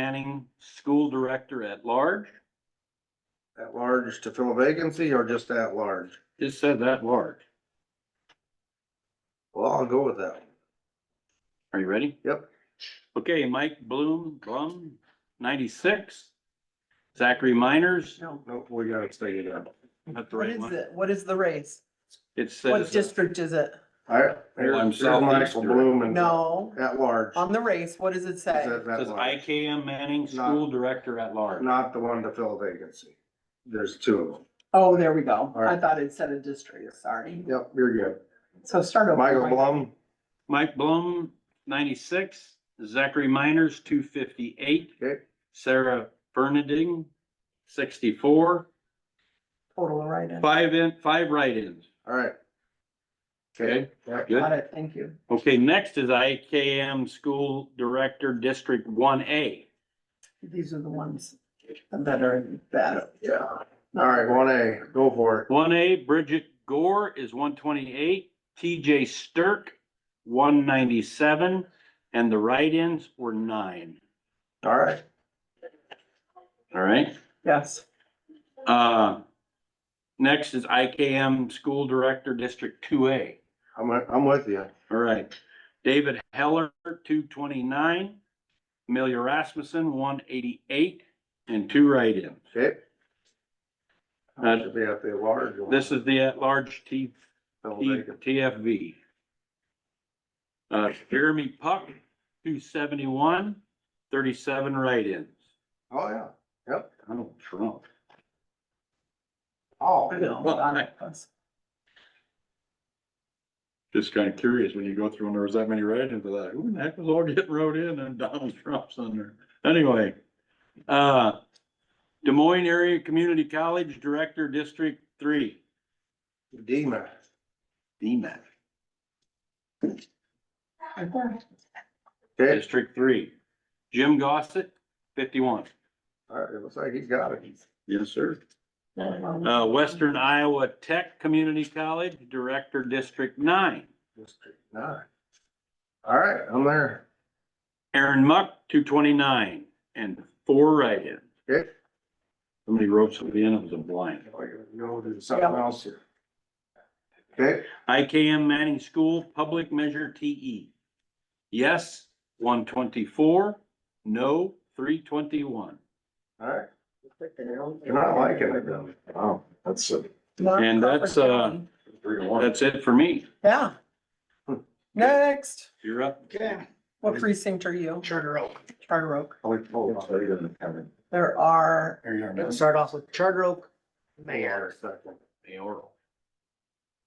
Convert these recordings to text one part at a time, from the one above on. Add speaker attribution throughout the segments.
Speaker 1: Manning, School Director at Large.
Speaker 2: At large to fill a vacancy or just at large?
Speaker 1: Just said that large.
Speaker 2: Well, I'll go with that.
Speaker 1: Are you ready?
Speaker 2: Yep.
Speaker 1: Okay, Mike Bloom, Blum, ninety-six. Zachary Miners,
Speaker 2: No, Nope, we gotta stay it up.
Speaker 1: that's the
Speaker 3: What
Speaker 1: right
Speaker 3: is
Speaker 1: one.
Speaker 3: it? What is the race?
Speaker 1: It
Speaker 3: What
Speaker 1: says,
Speaker 3: district is it?
Speaker 2: Alright,
Speaker 1: I'm
Speaker 2: here's
Speaker 1: sorry.
Speaker 2: Michael Bloom and
Speaker 3: No,
Speaker 2: at large.
Speaker 3: on the race, what does it say?
Speaker 2: Says at
Speaker 1: says
Speaker 2: large.
Speaker 1: IKM Manning, School Director at Large.
Speaker 2: Not the one to fill a vacancy. There's two of them.
Speaker 3: Oh, there we go. I
Speaker 2: right.
Speaker 3: thought it said a district, sorry.
Speaker 2: Yep, you're good.
Speaker 3: So start over.
Speaker 2: Michael
Speaker 3: Mike.
Speaker 2: Bloom,
Speaker 1: Mike Bloom, ninety-six. Zachary Miners, two fifty-eight.
Speaker 2: Okay.
Speaker 1: Sarah Bernading, sixty-four.
Speaker 3: Total right in.
Speaker 1: Five in, five write-ins.
Speaker 2: alright.
Speaker 1: Okay,
Speaker 2: Yep.
Speaker 1: good.
Speaker 3: Got it, thank you.
Speaker 1: Okay, next is IKM School Director, District one A.
Speaker 3: These are the ones that are bad.
Speaker 2: Yeah, alright, one A, go for it.
Speaker 1: One A, Bridget Gore is one twenty-eight, TJ Stirk, one ninety-seven, and the write-ins were nine,
Speaker 2: Alright,
Speaker 1: all right?
Speaker 3: Yes,
Speaker 1: Uh, next is IKM School Director, District two A,
Speaker 2: I'm, I'm with you.
Speaker 1: all right? David Heller, two twenty-nine, Amelia Rasmussen, one eighty-eight, and two write-ins.
Speaker 2: Okay.
Speaker 1: Uh,
Speaker 2: Should be at the large. one.
Speaker 1: This is the at-large T
Speaker 2: Fill a
Speaker 1: T-
Speaker 2: vacancy.
Speaker 1: TFV. Uh, Jeremy Puck, two seventy-one, thirty-seven write-ins.
Speaker 2: Oh, yeah.
Speaker 1: Donald Trump.
Speaker 3: I
Speaker 2: Oh,
Speaker 3: know. Donna was.
Speaker 1: Just kind of curious, when you go through and there was that many write-ins, I thought, who in the heck was all getting wrote in and Donald Trump's on there? Anyway, uh, Des Moines Area Community College Director, District Three.
Speaker 2: Dima.
Speaker 1: DMAC.
Speaker 2: Okay,
Speaker 1: District Three. Jim Gossett, fifty-one.
Speaker 2: alright, it looks like he's got it.
Speaker 1: Yes, sir. Uh, Western Iowa Tech Community College, Director, District Nine.
Speaker 2: District nine. All right, I'm there.
Speaker 1: Aaron Muck, two twenty-nine, and four write-ins.
Speaker 2: Okay.
Speaker 1: Somebody wrote something in, it was a blind.
Speaker 2: Oh, you know, there's something else here. Okay,
Speaker 1: IKM Manning School, Public Measure TE. Yes, one twenty-four, no, three twenty-one.
Speaker 2: all right. You're not liking it though. Wow, that's a.
Speaker 1: And that's, uh, That's it for me.
Speaker 3: Yeah. Next,
Speaker 1: You're up.
Speaker 2: Okay.
Speaker 3: what precinct are you?
Speaker 4: Charter Oak.
Speaker 3: Charter Oak.
Speaker 2: Mayor.
Speaker 3: There are,
Speaker 4: Let's start off with Charter Oak Mayor.
Speaker 2: second.
Speaker 1: Mayoral.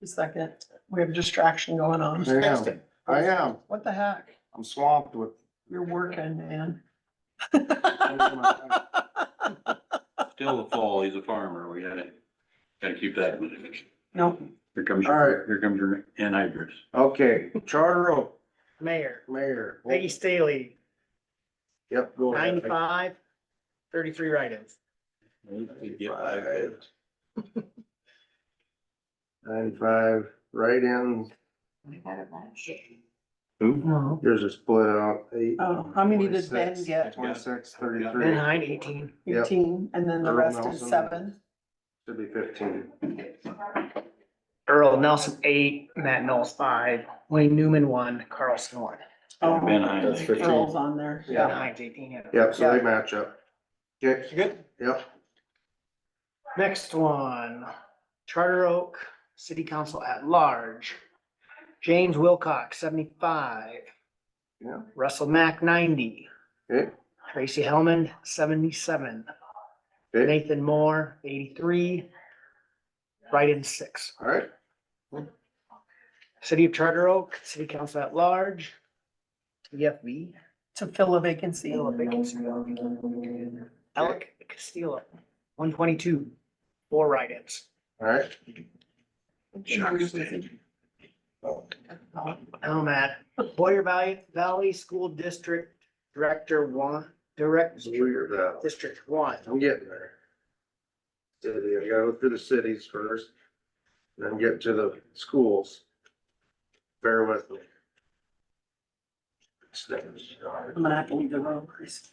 Speaker 3: a second, we have a distraction going on.
Speaker 2: I am, I am.
Speaker 3: What the heck?
Speaker 2: I'm swamped with.
Speaker 3: You're working, man.
Speaker 1: Still the fall, he's a farmer, we gotta, gotta keep that. in mind.
Speaker 3: Nope.
Speaker 1: Here comes
Speaker 2: All right.
Speaker 1: your, here comes your anhydrous.
Speaker 2: Okay, Charter Oak,
Speaker 4: Mayor,
Speaker 2: Mayor.
Speaker 4: Peggy Staley,
Speaker 2: Yep, go ahead.
Speaker 4: 95, 33 write-ins.
Speaker 2: Ninety-five. Ninety-five, write-ins,
Speaker 1: Who?
Speaker 3: No.
Speaker 2: yours are split out, eight.
Speaker 3: Oh, how many did Ben
Speaker 2: 26,
Speaker 3: get?
Speaker 2: Twenty-six,
Speaker 4: Ben
Speaker 2: thirty-three,
Speaker 4: Hine, eighteen.
Speaker 2: Yep.
Speaker 3: Eighteen, and then the
Speaker 2: Earl
Speaker 3: rest is
Speaker 2: Nelson.
Speaker 3: seven.
Speaker 2: should be fifteen.
Speaker 4: Earl Nelson, eight. Matt Knowles, five. Wayne Newman, one. Carlson, one.
Speaker 3: Oh,
Speaker 1: Ben uh, Hines.
Speaker 3: Earl's on there.
Speaker 4: Ben
Speaker 2: Yeah.
Speaker 4: Hines, eighteen. yeah.
Speaker 2: Yep, so they match up. Okay,
Speaker 4: Good.
Speaker 2: yep,
Speaker 4: Next one, Charter Oak City Council at Large. James Wilcox, seventy-five.
Speaker 2: Yeah.
Speaker 4: Russell Mack, ninety.
Speaker 2: okay,
Speaker 4: Tracy Hellman, seventy-seven.
Speaker 2: Okay.
Speaker 4: Nathan Moore, eighty-three. Write-in six.
Speaker 2: all right,
Speaker 4: City of Charter Oak, City Council at Large. TFB.
Speaker 3: To fill a vacancy.
Speaker 4: Castillo, vacancy. Alec Castillo, one twenty-two, four write-ins.
Speaker 2: all right.
Speaker 4: I'm at Boyer Valley, Valley School District Director One, Direct,
Speaker 2: Weird, uh,
Speaker 4: District One.
Speaker 2: I'm getting there. City, I gotta go through the cities first, then get to the schools. Bear with me. Steps.
Speaker 3: I'm gonna have to leave the room, Chris.